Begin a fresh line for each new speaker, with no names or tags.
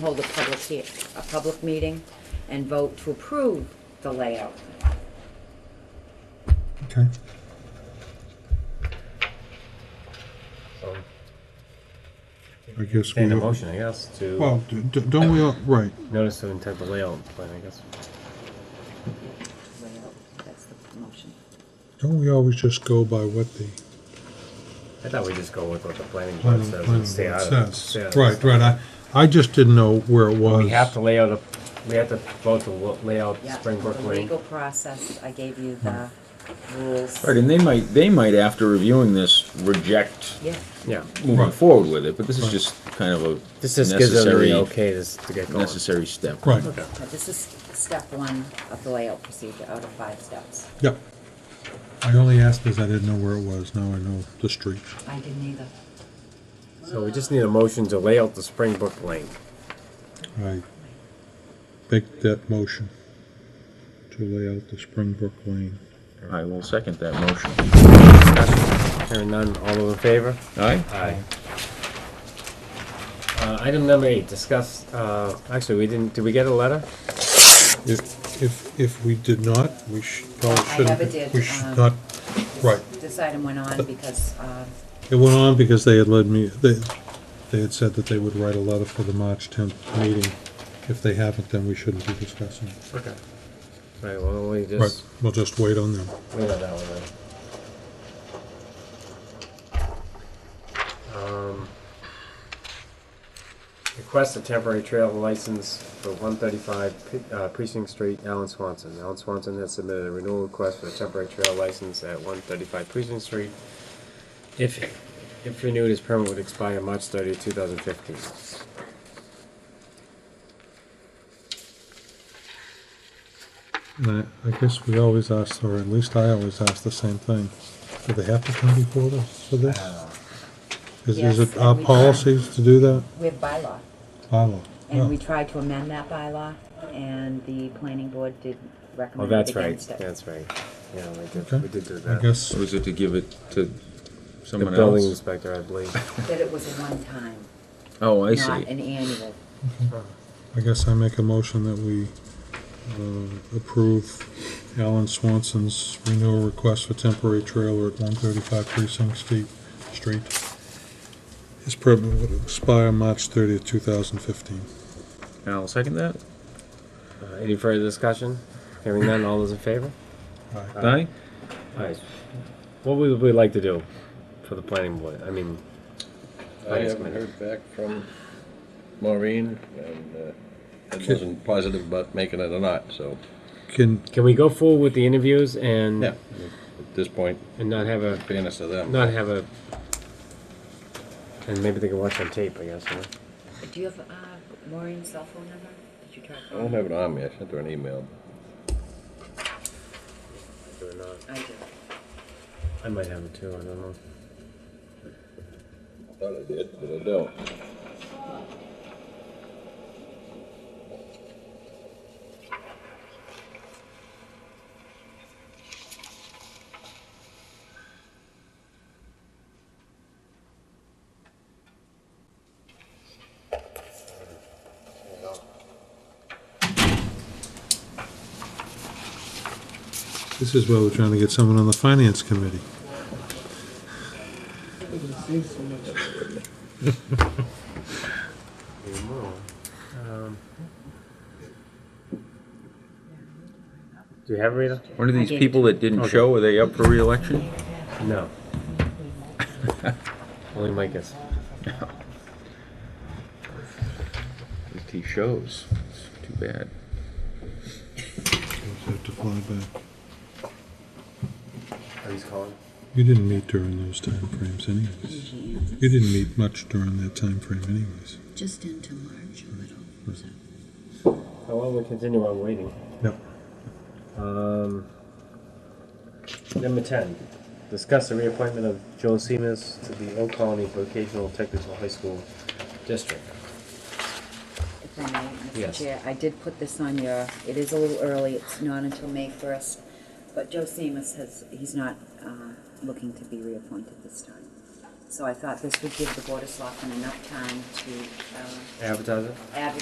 hold a public, hea- a public meeting and vote to approve the layout.
Okay.
So,
I guess we
entertain a
have,
motion, I guess, to
well, d- d- don't we, all right,
notice of intent the layout plan, I guess.
Layout, That's the motion.
don't we always just go by what the
I thought we just go with what the planning board
planning
says
planning
and stay out of
board
it. stay out
says?
of
Right,
it.
right, I, I just didn't know where it was.
We have to lay out a, we have to vote to lo- lay out
Yeah,
Springbrook
The
Lane.
legal process, I gave you the rules.
Right, and they might, they might, after reviewing this, reject
Yeah,
Yeah.
moving
Right.
forward with it, but this is just kind of a
This just gives them
necessary-
the okay to, s- to get going.
necessary step.
Right,
now this is step one of the layout procedure out of five steps.
yep. I only asked because I didn't know where it was, now I know the street.
I didn't either.
So we just need a motion to lay out the Springbrook Lane.
I make that motion to lay out the Springbrook Lane.
I will second that motion.
Hearing none, all those in favor?
Aye?
Aye. Uh, item number eight, discuss, uh, actually, we didn't, did we get a letter?
If, if, if we did not, we should, probably
I
shouldn't.
never did,
We should
um,
not, right.
This item went on because, uh,
It went on because they had led me, they, they had said that they would write a letter for the March tenth meeting. If they haven't, then we shouldn't be discussing. it.
Okay. Right, well, we
Right,
just,
we'll just wait on them.
we know that one then. Um, Request a temporary trail license for one thirty-five, uh, Precinct Street, Alan Swanson. Alan Swanson has submitted a renewal request for a temporary trail license at one thirty-five Precinct Street. If, if renewed, his permit would expire March thirtieth, two thousand fifteen.
And I, I guess we always ask, or at least I always ask the same thing. Do they have to come before this, for this? Is, is
Yes,
it
and
our
we-
policies to do that?
we have bylaw.
Bylaw.
And we
Oh,
tried to amend that bylaw and the planning board did
Oh,
recommend
that's
it
right,
against it.
that's right. Yeah, we
Okay.
did, we did do
I
that.
guess,
Or is it to give it to
The
someone
building
else?
inspector, I believe.
That it was a one-time,
Oh, I
not
see.
an annual.
I guess I make a motion that we, uh, approve Alan Swanson's renewal request for temporary trailer at one thirty-five Precinct Street, Street. His permit would expire March thirtieth, two thousand fifteen.
And I'll second that?
Uh, Any further discussion? Hearing none, all those in favor?
Uh,
Aye?
Alright, what would we like to do for the planning board? I mean,
I
Finance
haven't
Committee.
heard back from Maureen, and uh, I wasn't positive about making it or not, so
Can,
can we go forward with the interviews and
Yeah. at this point,
and not have a
fairness to them.
not have a and maybe they can watch on tape, I guess. You know?
Do you have uh, Maureen's cell phone number? Did you try?
I don't have it on me, I sent her an email.
Do it not.
I do.
I might have it too. I don't know.
I thought I did, but I don't.
this is where we're trying to get someone on the finance committee.
Maybe more. Um, do you have it, Rita?
One of these people that didn't show, are they up for reelection?
No. Only Mike is.
If he shows, it's too bad.
We'll have to fly back.
Oh, he's calling.
You didn't meet during those timeframes anyways. You didn't meet much during that timeframe anyways.
Just into March a little. so.
How long we continue on waiting?
Yep.
Um, number ten, discuss the reappointment of Joel Seamus to the Oak Colony Vocational Technical High School District.
If I may, Mr.
Yes.
Chair, I did put this on your, it is a little early, it's not until May 1st, but Joe Seamus has, he's not uh, looking to be reappointed this time. So I thought this would give the Board of Selectmen enough time to uh,
Advertise it?
advertise